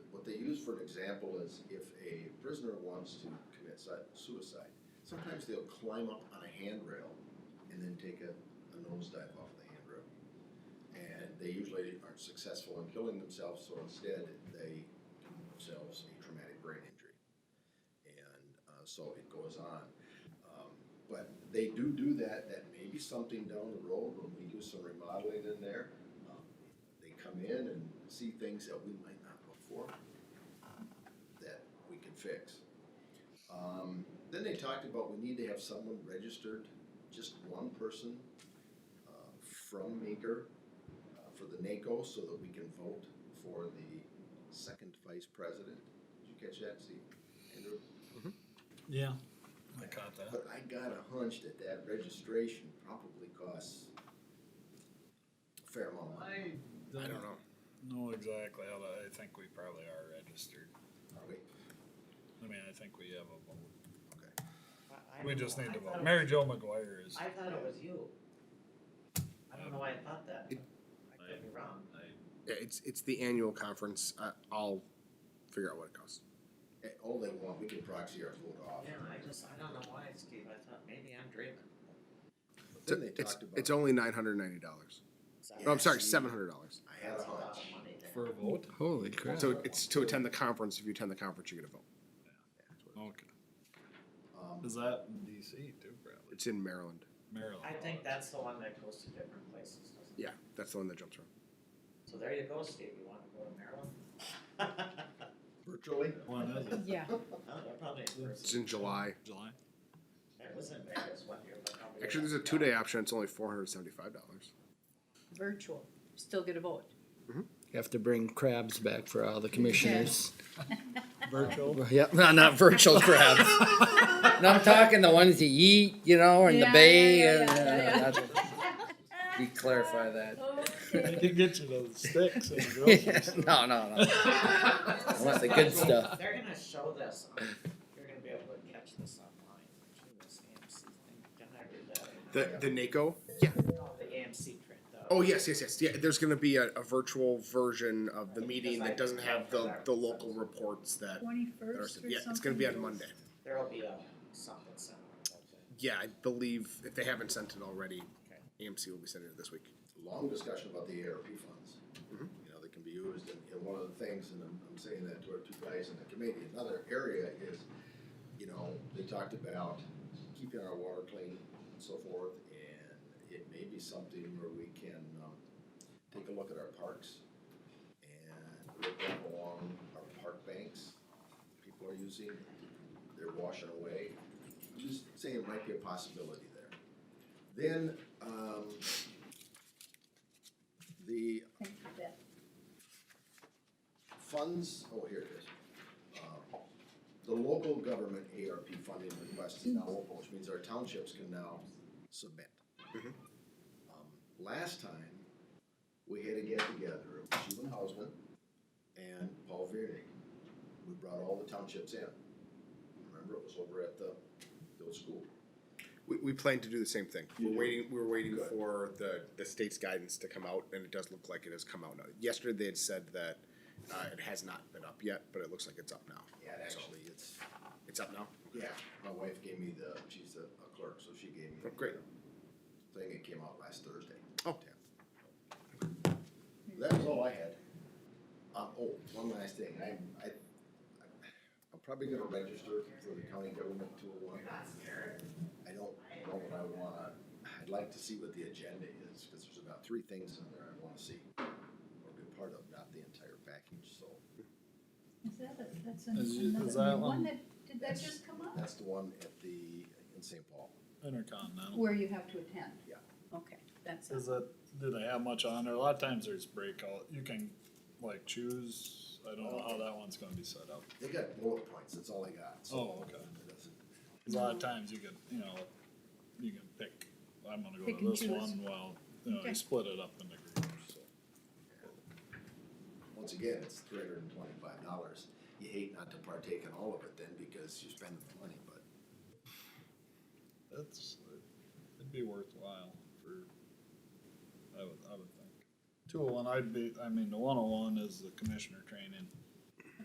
just for an example is if a prisoner wants to commit si- suicide, sometimes they'll climb up on a handrail and then take a, a nose dive off the handrail. And they usually aren't successful in killing themselves, so instead they do themselves a traumatic brain injury. And uh, so it goes on. Um, but they do do that, that may be something down the road when we do some remodeling in there. Um, They come in and see things that we might not look for that we can fix. Um, Then they talked about we need to have someone registered, just one person uh, from Meeker uh, for the NACO so that we can vote for the second vice president. Did you catch that, Steve? Andrew? Yeah. I caught But I got a hunch that that registration probably costs a fair amount of money. I I don't know. know exactly how that, I think we probably are registered. Are we? I mean, I think we have a vote. I- I We don't just know. need I to thought vote. it Mary was- Jo McGuire is. I thought it was you. I don't know why I thought that. It- I could be wrong. Yeah, it's it's the annual conference. I, I'll figure out what it costs. Eh, All they want, we can proxy our vote off. Yeah, I just, I don't know why, Steve, I thought maybe I'm dreaming. But Then they it's, talked it's about, only nine hundred ninety dollars. Sorry. No, I'm sorry, Yeah, see. seven hundred dollars. I had That's a a lot hunch. of money there. For a vote? Holy crap. So it's to attend the conference. If you attend the conference, you get a vote. Okay. Um, Is that in DC too, probably? It's in Maryland. Maryland. I think that's the one that goes to different places, doesn't it? Yeah, that's the one that jumps around. So there you go, Steve, you wanna go to Maryland? Oh, Virtually? When is it? Yeah, they're probably in It's person. in July. July? It was in Vegas one year, but nobody. Actually, there's a got to two go. day option. It's only four hundred seventy five dollars. virtual, still get a vote. You have to bring crabs back for all the commissioners. Virtual? Yep, no, not virtual crabs. No, I'm talking the ones you eat, you know, in the Yeah, bay. yeah, and- uh, yeah, yeah, You clarify that. I can get you those sticks and No, no, no. I want the good stuff. They're gonna show this on, you're gonna be able to catch this online, actually, this AMC thing, can I read that? The the NACO. Yeah. No, The AMC print though. Oh yes, yes, yes. Yeah. There's going to be a, a virtual version of the meeting that doesn't have the the local reports that. that are- Twenty-first Yeah, it's going to be on Monday. There'll be a something similar about that. Yeah, I believe if they haven't sent it already, Okay. AMC will be sending it this week. long discussion about the ARP funds. Mhm. You know, that can be used, and, and one of the things, and I'm, I'm saying that to our two guys in the committee, another area is, you know, they talked about keeping our water clean and so forth, and it may be something where we can, um, take a look at our parks and look at along our park banks, people are using, they're washing away. I'm Just saying it might be a possibility there. Then, um, the funds, oh, here it is. Um, The local government ARP funding request is now open, which means our townships can now submit. Mhm. Um, Last time, we had a get-together, of Sheila Hausman and Paul Viernick. We brought all the townships in. Remember, it was over at the, the old school. We, we plan to do the same thing. We're You do? waiting. We're waiting Good. for the, the state's guidance to come out, and it does look like it has come out now. Yesterday they had said that uh, it has not been up yet, but it looks like it's up now. Yeah, So, actually, it's, it's up now. yeah, my wife gave me the, she's a a clerk, so she gave me. Oh, great. the Thing, it came out last Thursday. Oh, That was all I had. Um, oh, one last thing, I, I, I'm probably gonna register for the county government two oh one. I don't know what I wanna, I'd like to see what the agenda is, cause there's about three things in there I wanna see. Or be part of, not the entire package, so Is that, a- that's Is you- is another, that one one- that, did that just come up? that's the one at the, in St. Paul. Intercontinental. Where you have to attend? Yeah. Okay, that's, Is it, do they have much on there? A lot of times there's breakout. You can like choose. I don't know how that one's gonna be set up. They got bullet points, that's all I got, so. Oh, okay. it doesn't- A lot of Mm-hmm. times you can, you know, you can pick, I'm gonna go Pick to and this choose. one, well, you know, Okay. you split it up into groups, so. Once again, it's three hundred and twenty-five dollars. You hate not to partake in all of it then, because you spend the money, but It's, it'd be worthwhile for, I would, I would think. Two oh one, I'd be, I mean, the one oh one is the commissioner training,